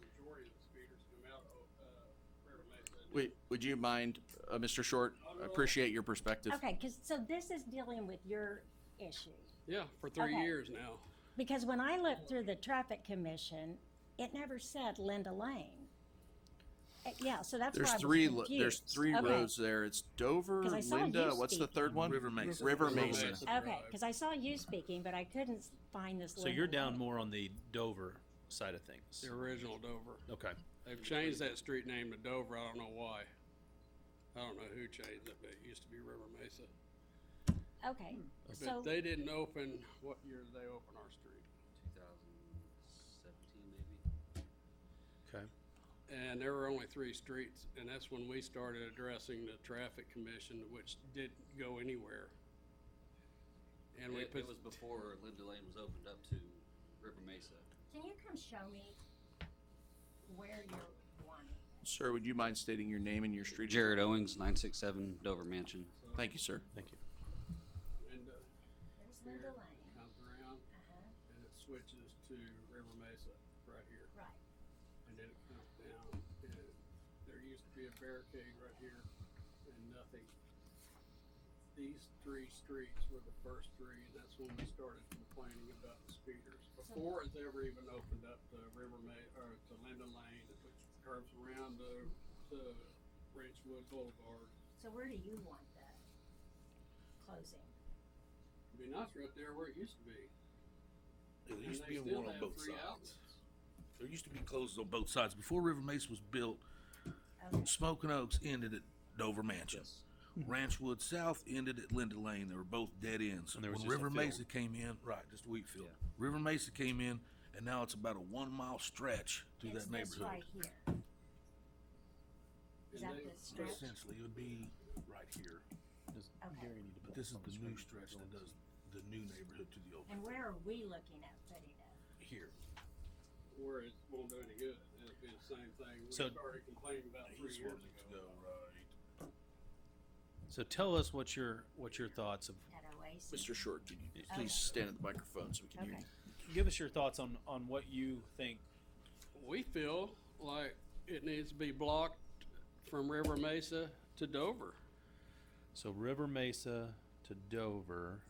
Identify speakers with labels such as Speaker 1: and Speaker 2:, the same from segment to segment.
Speaker 1: majority of the speakers come out of, uh, River Mesa.
Speaker 2: Wait, would you mind, uh, Mr. Short? I Appreciate your perspective.
Speaker 3: Okay, because, so this is dealing with your issue.
Speaker 1: Yeah, for three
Speaker 3: Okay.
Speaker 1: years now.
Speaker 3: Because when I looked through the traffic commission, it never said Linda Lane. Uh, Yeah, so that's why
Speaker 2: There's
Speaker 3: I was
Speaker 2: three, lo-
Speaker 3: confused.
Speaker 2: there's three
Speaker 3: Okay.
Speaker 2: roads there. It's Dover,
Speaker 3: 'Cause I saw you
Speaker 2: Linda, what's the
Speaker 3: speak.
Speaker 2: third one?
Speaker 4: River Mesa.
Speaker 2: River
Speaker 4: River
Speaker 2: Mesa.
Speaker 4: Mesa.
Speaker 3: Okay, because I saw you speaking, but I couldn't s- find this.
Speaker 5: So
Speaker 3: Linda
Speaker 5: you're down
Speaker 3: Lane.
Speaker 5: more on the Dover side of things.
Speaker 1: The original Dover.
Speaker 5: Okay.
Speaker 1: They've changed that street name to Dover. I don't know why. I don't know who changed it, but it used to be River Mesa.
Speaker 3: Okay, so,
Speaker 1: But they didn't open, what year did they open our street?
Speaker 6: 2017 maybe.
Speaker 5: Okay.
Speaker 1: And there were only three streets, and that's when we started addressing the traffic commission, which didn't go anywhere. And we
Speaker 6: It,
Speaker 1: put,
Speaker 6: it was before Linda Lane was opened up to River Mesa.
Speaker 3: can you come show me where you're wanting?
Speaker 2: Sir, would you mind stating your name and your street? address?
Speaker 6: Jared Owings, 967 Dover Mansion.
Speaker 2: Thank you, sir.
Speaker 5: Thank you.
Speaker 1: and, uh,
Speaker 3: There's Linda Lane,
Speaker 1: comes around,
Speaker 3: uh-huh,
Speaker 1: and it switches to River Mesa right here.
Speaker 3: right.
Speaker 1: And then it comes down, and there used to be a barricade right here and nothing. These three streets were the first three, and that's when we started complaining about the speeders.
Speaker 3: Uh-huh.
Speaker 1: Before it's ever even opened up to River Ma, or to Linden Lane, which curves around to, to Ranchwood Boulevard.
Speaker 3: So where do you want that closing?
Speaker 1: I mean, that's right there where it used to be.
Speaker 4: There
Speaker 1: And
Speaker 4: used to
Speaker 1: they
Speaker 4: be
Speaker 1: still
Speaker 4: one on
Speaker 1: have
Speaker 4: both
Speaker 1: three
Speaker 4: sides.
Speaker 1: outlets.
Speaker 4: There used to be closed on both sides. Before River Mesa was built,
Speaker 3: Okay,
Speaker 4: Smoking Oaks ended at Dover Mansion. Ranchwood South ended at Linda Lane. They were both dead ends.
Speaker 5: And there was just
Speaker 4: when
Speaker 5: a
Speaker 4: River
Speaker 5: field.
Speaker 4: Mesa came in, right, just a wheat field. River Mesa came in, and now it's about a one mile stretch through
Speaker 3: It's
Speaker 4: that
Speaker 3: this right
Speaker 4: neighborhood.
Speaker 3: here. Is
Speaker 1: And
Speaker 3: that
Speaker 1: they-
Speaker 3: the stretch?
Speaker 4: Essentially, it would be right here.
Speaker 3: Okay.
Speaker 4: But this is the new stretch that does the new neighborhood to the old
Speaker 3: And where are we looking at putting it?
Speaker 4: here.
Speaker 1: Where it won't do any good. It'll be the same thing. We
Speaker 5: So-
Speaker 1: started complaining about
Speaker 4: He
Speaker 1: three
Speaker 4: just wanted
Speaker 1: years
Speaker 4: it to
Speaker 1: ago.
Speaker 4: go right.
Speaker 5: So tell us what your what your thoughts of
Speaker 3: At Oasis?
Speaker 2: Mr. Short, could you
Speaker 3: Okay.
Speaker 2: please stand at the microphone so we can hear
Speaker 3: Okay.
Speaker 2: you?
Speaker 5: give us your thoughts on on what you think.
Speaker 1: We feel like it needs to be blocked from River Mesa to Dover.
Speaker 5: So River Mesa to Dover.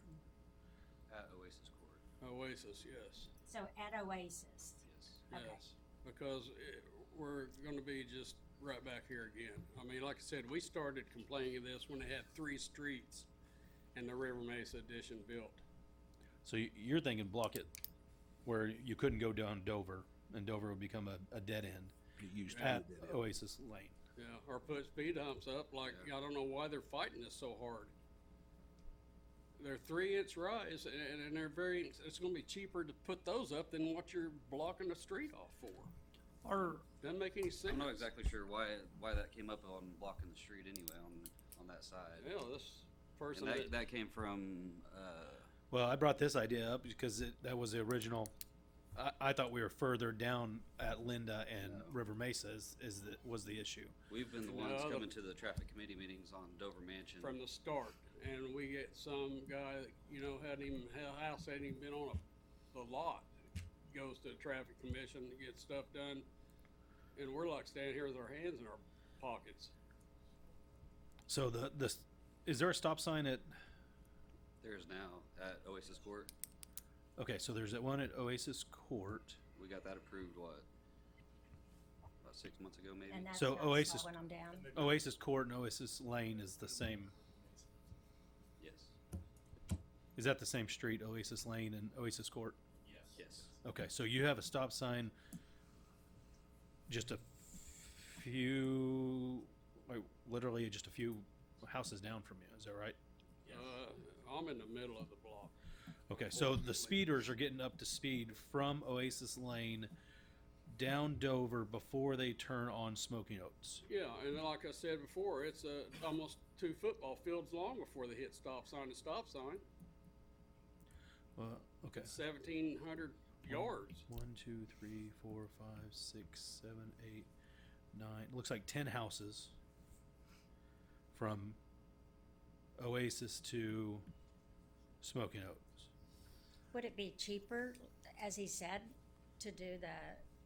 Speaker 6: At Oasis Court,
Speaker 1: Oasis, yes,
Speaker 3: So at Oasis,
Speaker 6: yes.
Speaker 3: Okay.
Speaker 1: yes. Because it, we're gonna be just right back here again. I mean, like I said, we started complaining of this when they had three streets and the River Mesa addition built.
Speaker 5: So you- you're thinking block it where you couldn't go down Dover, and Dover would become a, a dead end
Speaker 4: It used to be
Speaker 5: at
Speaker 4: dead end.
Speaker 5: Oasis Lane.
Speaker 1: Yeah, or put speed humps up, like, I don't know why they're fighting this so hard. They're three inch rise and, and they're very, it's gonna be cheaper to put those up than what you're blocking the street off for.
Speaker 5: Or
Speaker 1: Doesn't make any sense.
Speaker 6: I'm not exactly sure why why that came up on blocking the street anyway on on that side.
Speaker 1: Yeah, this person
Speaker 6: And
Speaker 1: that,
Speaker 6: that, that came from uh,
Speaker 5: well, I brought this idea up because it, that was the original. I, I thought we were further down at Linda and
Speaker 6: No.
Speaker 5: River Mesa is, is the, was the issue.
Speaker 6: we've been the ones
Speaker 1: No, the-
Speaker 6: coming to the traffic committee meetings on Dover Mansion.
Speaker 1: from the start, and we get some guy that you know hadn't even his house hadn't even been on a, the lot. Goes to the traffic commission to get stuff done, and we're like standing here with our hands in our pockets.
Speaker 5: So the the is there a stop sign at?
Speaker 6: There's now at Oasis Court.
Speaker 5: Okay, so there's that one at Oasis Court.
Speaker 6: We got that approved what about six months ago maybe.
Speaker 3: and that's how
Speaker 5: So
Speaker 3: I saw
Speaker 5: Oasis-
Speaker 3: When I'm down,
Speaker 5: Oasis Court and Oasis Lane is the same.
Speaker 6: yes.
Speaker 5: Is that the same street, Oasis Lane and Oasis Court?
Speaker 6: Yes.
Speaker 5: Okay, so you have a stop sign just a few, like literally just a few houses down from you. Is that right?
Speaker 1: Uh, I'm in the middle of the block.
Speaker 5: Okay, so the speeders are getting up to speed from Oasis Lane down Dover before they turn on Smoking Oats.
Speaker 1: Yeah, and like I said before, it's uh, almost two football fields long before they hit stop sign to stop sign.
Speaker 5: Uh, okay.
Speaker 1: Seventeen hundred yards.
Speaker 5: One, two, three, four, five, six, seven, eight, nine. Looks like ten houses from Oasis to Smoking Oaks.
Speaker 3: would it be cheaper, as he said, to do the